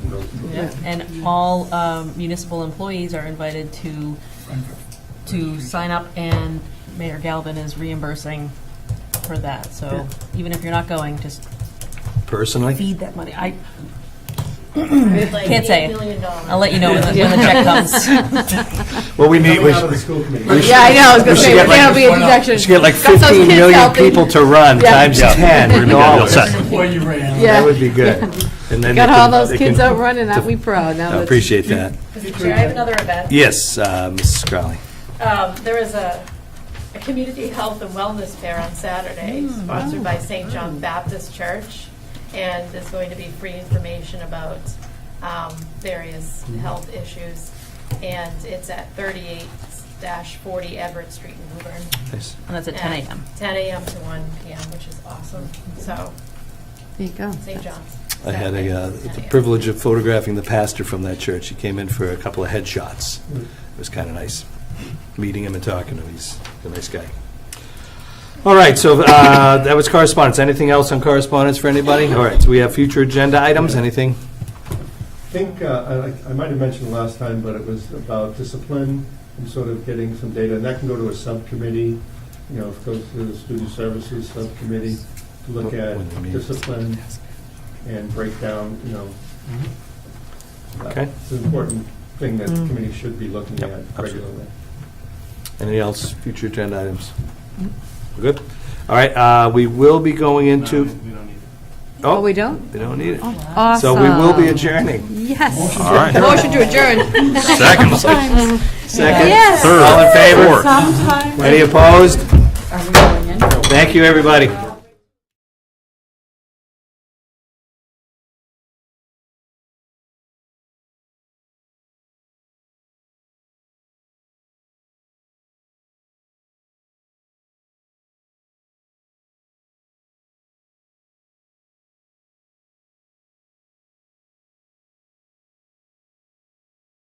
And all um, municipal employees are invited to, to sign up, and Mayor Galvin is reimbursing for that. So even if you're not going, just Personally, feed that money. I, Like Can't say. $8 million dollars. I'll let you know when the, when the check comes. well, we meet, we Coming out of the should school committee. Yeah, I know, I was gonna We say, should get we can't like- be a deduction. just get like Got those 15 kids million helping. people to run, Yeah. times Yeah. 10 dollars. set. Before you ran. That Yeah, would be good. And then got they can- all those they kids can- out running, that we proud, now I that's. appreciate that. Mr. Chair, I have another event. Yes, uh, Mrs. Crowley. Um, There is a, a community health and wellness fair on Saturday, sponsored by St. John Baptist Church, and there's going to be free information about um, various health issues, and it's at 38-40 Everett Street in Woburn. Nice. And that's at 10 a.m. 10 a.m. to 1 p.m., which is awesome. So, There you go. St. John's. I had Saturday, a, uh, 10 the a.m. privilege of photographing the pastor from that church. He came in for a couple of headshots. It was kind of nice, meeting him and talking to him. He's a nice guy. All right, so uh, that was correspondence. Anything else on correspondence for anybody? All right, so we have future agenda items, anything? I think, uh, I I might have mentioned last time, but it was about discipline and sort of getting some data, and that can go to a subcommittee, you know, it goes to the student services subcommittee to look at When they meet. discipline and break down, you know. Mm-hmm. uh, Okay. It's an important thing that the committee should be looking Yep, at absolutely. regularly. Anything else, future agenda items? We're Good? All right, uh, we will be going into, Oh, oh, we don't? they don't need it. So Awesome. we will be adjourning. Yes. All right. Motion to adjourn. Second, Second, Yes. all in favor? third, fourth. Any opposed? Thank you, everybody.